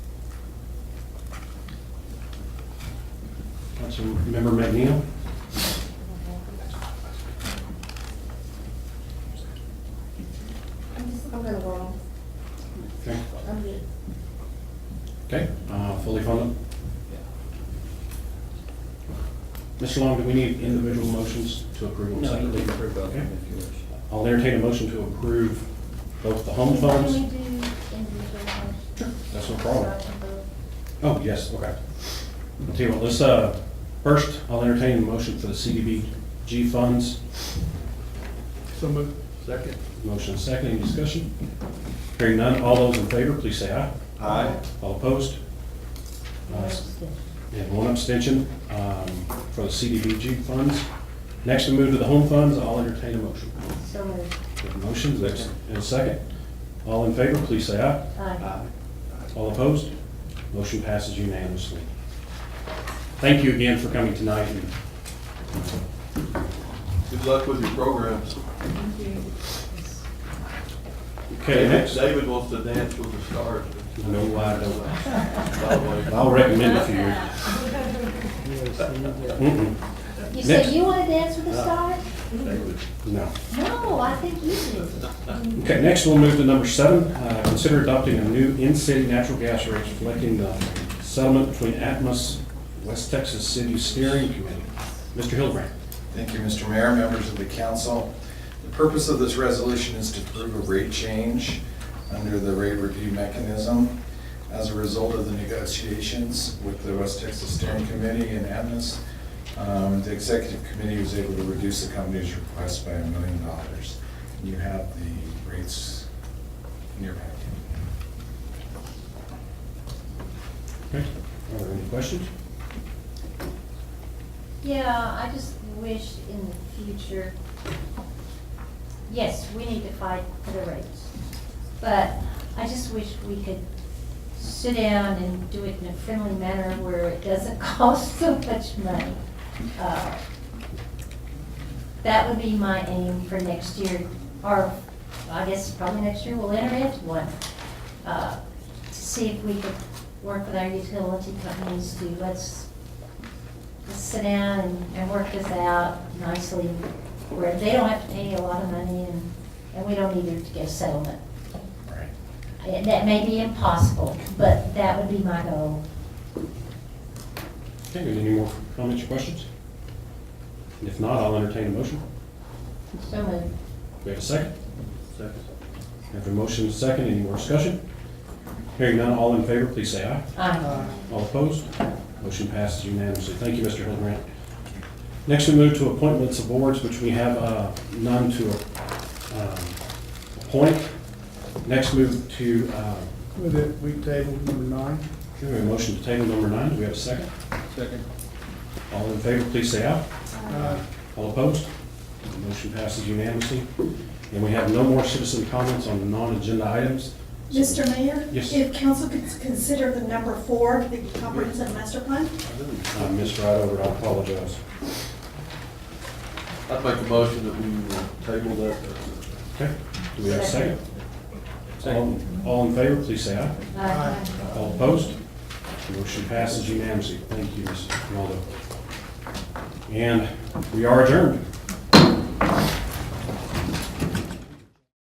Councilmember McNeil? I'm just, I'm gonna roll. Okay, I'm good. Okay. uh, fully funded? Mr. Long, do we need individual motions to approve? them No, you separately? can approve both of them if you wish. I'll entertain a motion to approve both the home Can we funds. do individual motions? That's no So problem. I can vote. Oh, yes, okay. I'll tell you what, let's, uh, first, I'll entertain a motion for the CDBG funds. So moved. Second. Motion is second, any discussion? Hearing none, all those in favor, please say aye. Aye. All opposed? Nice. And one abstention um, for the CDBG funds. Next, we move to the home funds, I'll entertain a motion. So moved. We have a Motion, is there a second? All in favor, please say aye. Aye. All opposed? Motion passes unanimously. Thank you again for coming tonight. Good luck with your programs. Okay, next, David wants to dance with the stars. No, I don't. By the way. I'll recommend a few. Mm-mm, You Next. said you wanna dance with the stars? David. No. No, I think you do. Okay, next we'll move to number seven. Uh, Consider adopting a new in-city natural gas rate reflecting the settlement between Atmos, West Texas City Steering Committee. Mr. Hildebrand. Thank you, Mr. Mayor, members of the council. The purpose of this resolution is to approve a rate change under the rate review mechanism as a result of the negotiations with the West Texas Steering Committee and Atmos. um, The executive committee was able to reduce the company's request by a million dollars. You have the rates in your packet. Okay. Are there any questions? Yeah, I just wish in the future, yes, we need to fight for the rates. But I just wish we could sit down and do it in a friendly manner where it doesn't cost so much money. Uh, That would be my aim for next year, or I guess probably next year we'll enter into one. uh, To see if we could work with our utility companies to, let's Let's sit down and, and work this out nicely, where they don't have to pay a lot of money and, and we don't either to get a settlement. Right. And That may be impossible, but that would be my goal. Okay, any more comments or questions? And If not, I'll entertain a motion. So moved. We have a second? Second. We have a motion, and a second, any more discussion? Hearing none, all in favor, please say aye. Aye. All opposed? Motion passes unanimously. Thank you, Mr. Hildebrand. Next, we move to appointments of boards, which we have uh, none to um, appoint. Next, move to, uh, With it, we tabled number nine. okay, we have a motion to table number nine. Do we have a second? Second. All in favor, please say aye. Uh, All opposed? Motion passes unanimously. And we have no more citizen comments on the non-agenda items. Mr. Mayor? Yes. If council could consider the number four, the comprehensive master plan? I missed right over it. Uh, I apologize. I'd make a motion that we uh, table that. uh, Okay, do we have a second? All- All in favor, please say aye. Aye. All opposed? Motion passes unanimously. Thank you, Mr. Ronaldo. And we are adjourned.